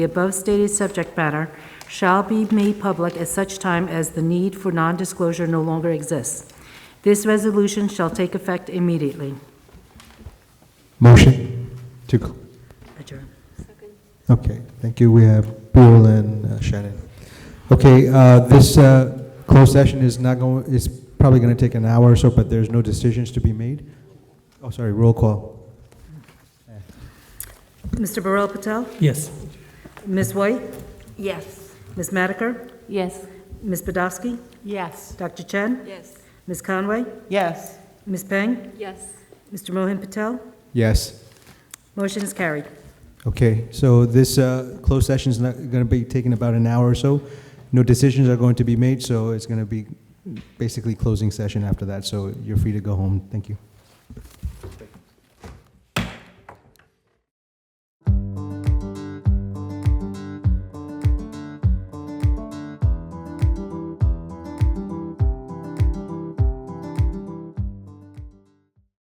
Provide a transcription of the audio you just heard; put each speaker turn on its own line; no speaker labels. The above stated subject matter shall be made public at such time as the need for non-disclosure no longer exists. This resolution shall take effect immediately.
Motion to,
Adjourn.
okay, thank you. We have Bill and uh, Shannon. Okay, uh, this uh, closed session is not going, it's probably going to take an hour or so, but there's no decisions to be made. Oh, sorry, roll call.
Mr. Burrell Patel?
Yes.
Ms. White?
Yes.
Ms. Madiker?
Yes.
Ms. Podolsky?
Yes.
Dr. Chen?
Yes.
Ms. Conway?
Yes.
Ms. Peng?
Yes.
Mr. Mohan Patel?
Yes.
Motion is carried.
Okay, so this uh, closed session is not going to be taking about an hour or so. No decisions are going to be made, so it's going to be basically closing session after that, so you're free to go home. Thank you.